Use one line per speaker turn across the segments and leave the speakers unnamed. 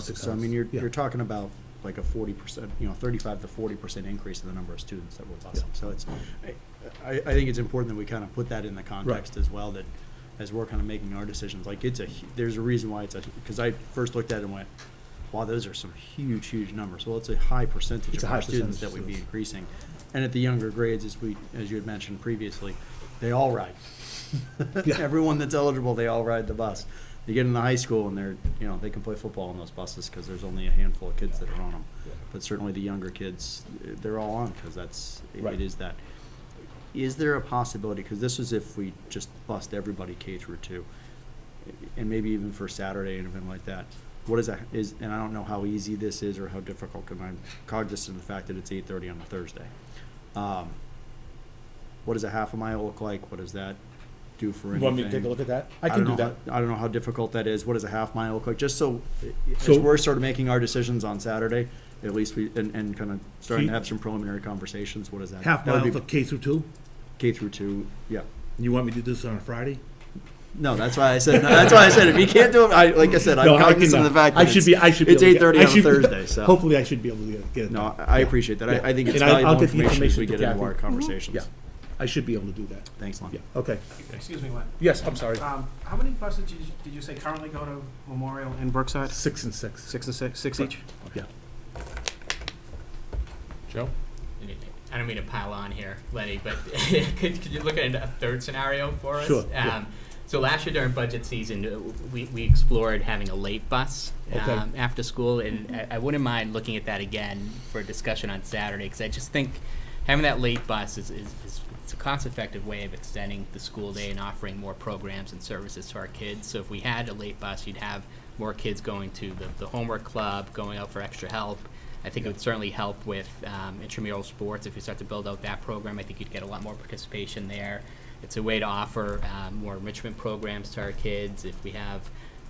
So I mean, you're, you're talking about like a forty percent, you know, thirty-five to forty percent increase in the number of students that we're busing. So it's, I- I, I think it's important that we kind of put that in the context as well, that as we're kind of making our decisions, like it's a, hu- there's a reason why it's a, because I first looked at it and went, wow, those are some huge, huge numbers. Well, it's a high percentage
It's a
of our
high
students
percentage
that
of
we'd be
students.
increasing. And at the younger grades, as we, as you had mentioned previously, they all ride.
Yeah.
Everyone that's eligible, they all ride the bus. They get into high school and they're, you know, they can play football on those buses because there's only a handful of kids that are on them.
Yeah.
But certainly the younger kids, eh, they're all on because that's, it-
Right.
it is that. Is there a possibility, because this is if we just bust everybody K through two, eh, and maybe even for Saturday and event like that, what is that, is, and I don't know how easy this is or how difficult, because I'm cognizant of the fact that it's eight thirty on a Thursday. Um, What does a half a mile look like? What does that do for
You
anything?
want me to take a look at that? I can
don't
do
know
that.
how- I don't know how difficult that is. What does a half mile look like? Just so, as
So-
we're sort of making our decisions on Saturday, at least we, and, and kind of starting to
you-
have some preliminary conversations, what is that?
Half
that would
mile
be
for K through two?
K through two, yeah.
You want me to do this on a Friday?
No, that's why I said, that's why I said, if you can't do it, I, like I said,
No,
I'm
I can,
cognizant
uh,
of the fact
I
that
should be,
it's,
I should be.
it's
able to get-
8:30
I
on a
should-
Thursday, so.
Hopefully I should be able to get- get it
no,
done.
I I appreciate that.
Yeah.
I, I think it's
And I- I'll
valuable
get the
information as
information
we
to
get into
Kathy.
our
Mhm.
conversations.
Yeah, I should be able to do that.
Thanks, Lon.
Yeah, okay.
Excuse me, Len.
Yes, I'm sorry.
Um, how many buses did you, did you say currently go to Memorial and Brookside?
Six and six.
Six and six, six each?
Joe?
I don't mean to pile on here, Lenny, but could, could you look at a third scenario for us?
Sure,
Um,
yeah.
So last year during budget season, uh, we, we explored having a late bus
Okay.
um, after school, and I, I wouldn't mind looking at that again for a discussion on Saturday, because I just think having that late bus is, is, is it's a cost-effective way of extending the school day and offering more programs and services to our kids. So if we had a late bus, you'd have more kids going to the, the homework club, going out for extra help. I think it would certainly help with um, intramural sports. If you start to build out that program, I think you'd get a lot more participation there. It's a way to offer um, more enrichment programs to our kids. If we have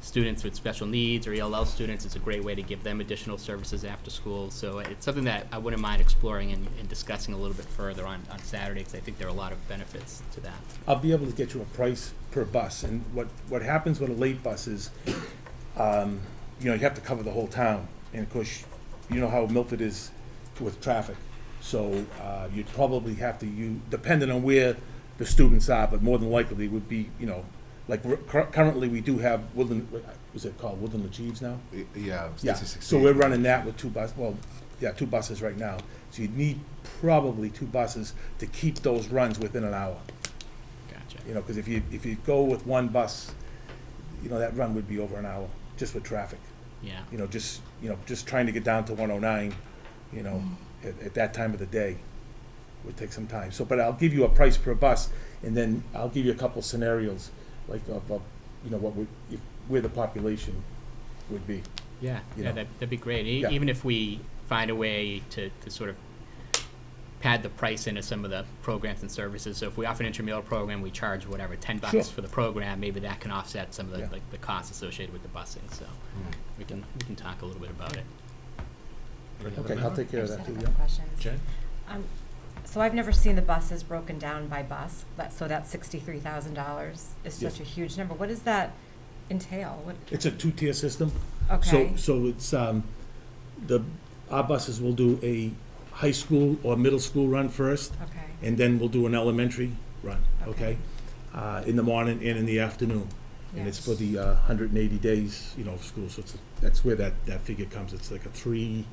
students with special needs or ELL students, it's a great way to give them additional services after school. So it's something that I wouldn't mind exploring and, and discussing a little bit further on, on Saturday because I think there are a lot of benefits to that.
I'll be able to get you a price per bus, and what, what happens with a late bus is, um, you know, you have to cover the whole town, and of course, you know how Milford is with traffic. So, uh, you'd probably have to, you, depending on where the students are, but more than likely would be, you know, like, we're- cur- currently, we do have Woodland, uh, is it called Woodland Achieves now?
Yeah. it's
Yeah,
66.
so we're running that with two bus, well, yeah, two buses right now. So you'd need probably two buses to keep those runs within an hour.
Gotcha.
You know, because if you, if you go with one bus, you know, that run would be over an hour, just with traffic.
Yeah.
You know, just, you know, just trying to get down to one oh nine, you know, at, at that time of the day would take some time. So, but I'll give you a price per bus, and then I'll give you a couple scenarios, like of, of, you know, what would, if, where the population would be.
Yeah,
you
yeah,
know.
that, that'd be great. E-
Yeah.
Even if we find a way to, to sort of pad the price into some of the programs and services. So if we offer an intramural program, we charge whatever, ten
Sure.
bucks for the program, maybe that can offset some of the,
Yeah. Mm.
like, the costs associated with the busing, so we can, we can talk a little bit about it.
Okay, I'll take care of
I
that
just had
too,
a
yeah.
couple questions.
Jen?
Um, So I've never seen the buses broken down by bus, but, so that's sixty-three thousand dollars is
Yeah.
such a huge number. What does that entail? What,
It's a two-tier system.
okay,
So, so it's, um, the, our buses will do a high school or middle school run first,
okay,
and then we'll do an elementary run, okay?
Okay.
Uh, in the morning and in the afternoon. And it's for
Yes.
the, uh, hundred and eighty days, you know, of school, so it's, that's where that, that figure comes. It's like a three,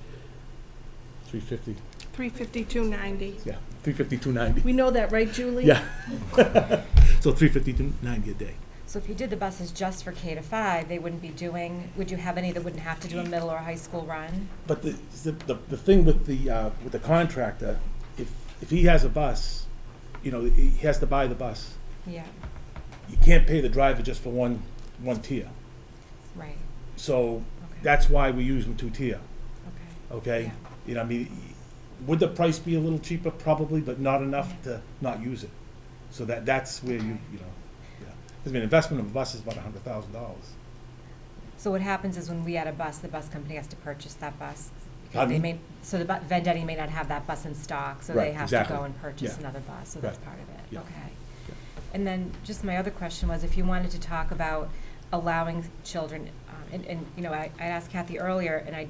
three fifty,
352.90.
yeah, three fifty-two ninety.
We know that, right, Julie?
Yeah. So three fifty-two ninety a day.
So if you did the buses just for K to five, they wouldn't be doing, would you have any that wouldn't have to do a middle or high school run?
But the, the, the- the thing with the, uh, with the contractor, if, if he has a bus, you know, he has to buy the bus.
Yeah,
You can't pay the driver just for one, one tier.
right,
So
okay,
that's why we use them two-tier,
okay.
okay?
Yeah.
You know, I mean, would the price be a little cheaper? Probably, but not enough to not use it. So that, that's where you, you know, yeah. 'Cause, I mean, investment of a bus is about a hundred thousand dollars.
So what happens is when we add a bus, the bus company has to purchase that bus. because They
Pardon?
may, so the bu- Vendetti may not have that bus in stock, so
Right,
they have to
exactly.
go and purchase
Yeah.
another bus, so that's
Right.
part of it,
Yeah.
okay. And then, just my other question was, if you wanted to talk about allowing children um, and, and, you know, I, I asked Kathy earlier, and I